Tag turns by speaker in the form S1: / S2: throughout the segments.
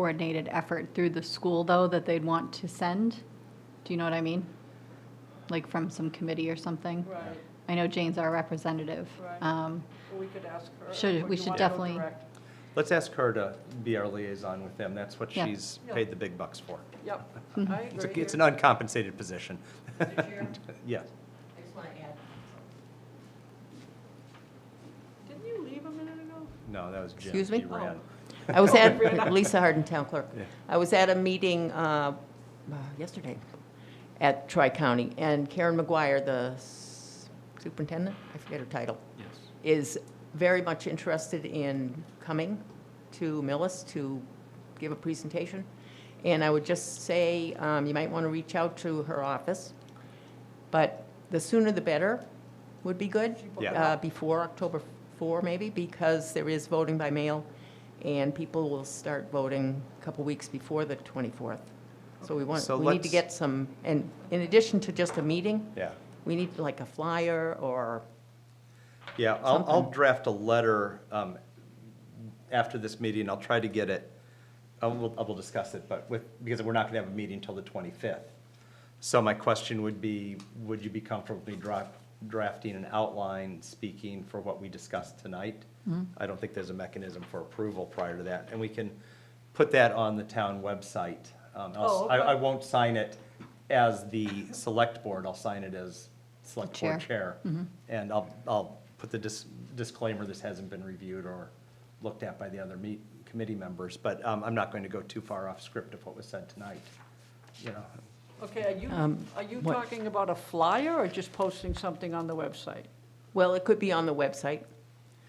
S1: coordinated effort through the school, though, that they'd want to send? Do you know what I mean? Like from some committee or something?
S2: Right,
S1: I know Jane's our representative.
S2: Right.
S1: Um,
S2: Well, we could ask her.
S1: Should-
S2: or do
S1: we
S2: you
S1: should
S2: wanna go
S1: definitely-
S2: direct?
S3: Let's ask her to be our liaison with them. That's what
S1: Yeah.
S3: she's
S2: Yeah.
S3: paid the big bucks for.
S2: Yep,
S1: Mhm.
S2: I
S3: It's, a-
S2: agree.
S3: it's an uncompensated position. Uh,
S4: Mr. Chair,
S3: Yes.
S4: I just want to add,
S2: Didn't you leave a minute ago?
S3: No, that was Jim.
S4: Excuse me?
S3: He ran.
S4: I was at, Lisa Harden, Town Clerk.
S3: Yeah.
S4: I was at a meeting uh, uh, yesterday at Tri-County, and Karen McGuire, the s- superintendent, I forget her title,
S3: Yes.
S4: is very much interested in coming to Millis to give a presentation. And I would just say, um, you might want to reach out to her office, but the sooner the better would be good.
S3: Yeah.
S4: uh, Before October 4, maybe, because there is voting by mail, and people will start voting a couple weeks before the 24th. So we want,
S3: So
S4: we need to
S3: let's-
S4: get some, and in addition to just a meeting,
S3: Yeah.
S4: we need like a flyer or
S3: Yeah, I'll, I'll
S4: Something.
S3: draft a letter um, after this meeting, I'll try to get it, I will, I will discuss it, but with, because we're not going to have a meeting until the 25th. So my question would be, would you be comfortable draft, drafting an outline, speaking for what we discussed tonight? I don't think there's a mechanism for approval prior to that, and we can put that on the town website. Um, I'll-
S2: Oh,
S3: I,
S2: okay.
S3: I won't sign it as the select board, I'll sign it as select board
S1: Chair.
S3: chair chair. And I'll, I'll put the dis- disclaimer, this hasn't been reviewed or looked at by the other meet, committee members, but um, I'm not going to go too far off script of what was said tonight, you know.
S2: Okay, are you,
S4: Um,
S2: are you
S4: what-
S2: talking about a flyer or just posting something on the website?
S4: Well, it could be on the website,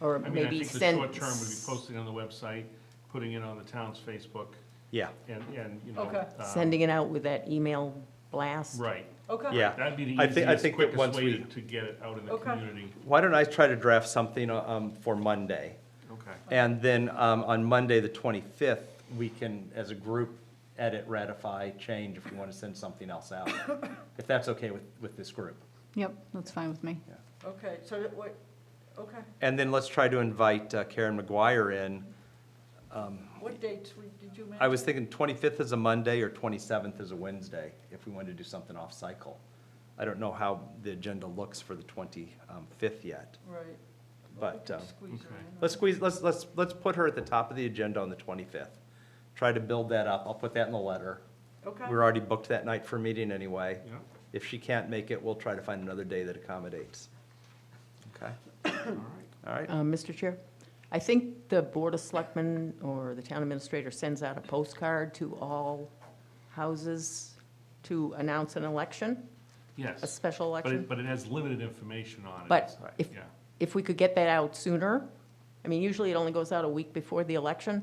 S4: or
S5: I mean, I
S4: maybe
S5: think the
S4: send.
S5: short term would be posting on the website, putting it on the town's Facebook,
S3: Yeah,
S5: and, and, you know.
S2: Okay.
S5: uh,
S4: Sending it out with that email blast.
S5: Right.
S2: Okay.
S3: yeah.
S5: That'd be the
S3: I think- I
S5: easiest,
S3: think that once
S5: quickest way
S3: we-
S5: to get it out in the
S2: Okay.
S5: community.
S3: Why don't I try to draft something um, for Monday?
S5: Okay.
S3: And then um, on Monday, the 25th, we can, as a group, edit, ratify, change if we want to send something else out, if that's okay with, with this group.
S1: Yep, that's fine with me.
S2: Okay, so that what, okay,
S3: And then let's try to invite uh, Karen McGuire in.
S2: what dates we- did you mention?
S3: I was thinking 25th is a Monday or 27th is a Wednesday, if we wanted to do something off-cycle. I don't know how the agenda looks for the 25th yet,
S2: Right. Well, we
S3: but
S2: can
S3: um,
S2: squeeze her
S5: okay.
S2: in.
S3: let's squeeze, let's, let's, let's put her at the top of the agenda on the 25th. Try to build that up. I'll put that in the letter.
S2: Okay,
S3: We're already booked that night for a meeting anyway.
S5: Yeah.
S3: If she can't make it, we'll try to find another day that accommodates. Okay,
S5: All right.
S3: all right?
S4: Um, Mr. Chair, I think the Board of Selectmen or the town administrator sends out a postcard to all houses to announce an election, a
S5: Yes,
S4: special
S5: but it,
S4: election.
S5: but it has limited information on it.
S4: But
S3: Right.
S4: if,
S5: Yeah,
S4: if we could get that out sooner, I mean, usually it only goes out a week before the election.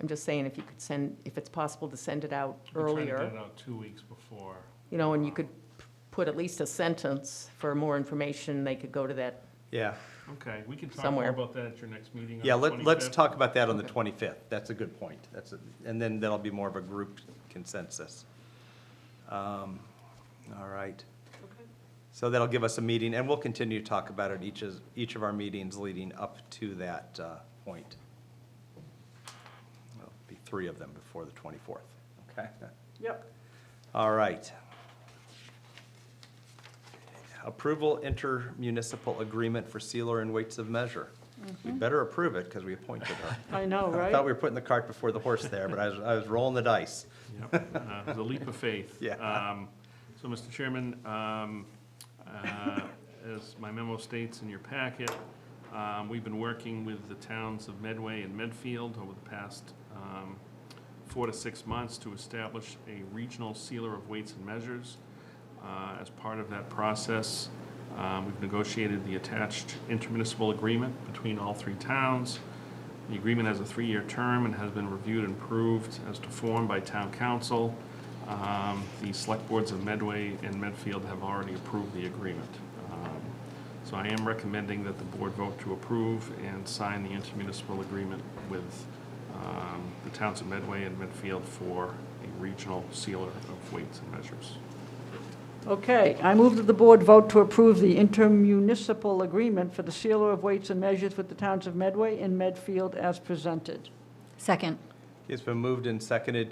S4: I'm just saying if you could send, if it's possible to send it out
S5: we're
S4: earlier.
S5: trying to get it out two weeks before.
S4: You know, and you could p- put at least a sentence for more information, they could go to that,
S3: Yeah,
S5: Okay, we can talk more
S4: Somewhere.
S5: about that at your next meeting on the
S3: yeah, let, let's
S5: 25th.
S3: talk about that on the 25th. That's a good point. That's, a- and then that'll be more of a group consensus. Um, All right.
S2: okay.
S3: So that'll give us a meeting, and we'll continue to talk about it each, is- each of our meetings leading up to that uh, point. There'll Be three of them before the 24th, okay?
S2: Yep,
S3: All right. Approval intermunicipal agreement for sealer and weights of measure. We better approve it, because we appointed her.
S2: I know,
S3: I thought we
S2: right?
S3: were putting the cart before the horse there, but I was, I was rolling the dice.
S5: Yep, uh, it was a leap of faith.
S3: Yeah.
S5: Um, So, Mr. Chairman, um, uh, as my memo states in your packet, um, we've been working with the towns of Medway and Medfield over the past um, four to six months to establish a regional sealer of weights and measures. Uh, As part of that process, um, we've negotiated the attached intermunicipal agreement between all three towns. The agreement has a three-year term and has been reviewed and approved as to form by town council. Um, The select boards of Medway and Medfield have already approved the agreement. Um, So I am recommending that the board vote to approve and sign the intermunicipal agreement with um, the towns of Medway and Medfield for a regional sealer of weights and measures.
S2: Okay, I move that the board vote to approve the intermunicipal agreement for the sealer of weights and measures with the towns of Medway and Medfield as presented.
S1: Second,
S3: It's been moved and seconded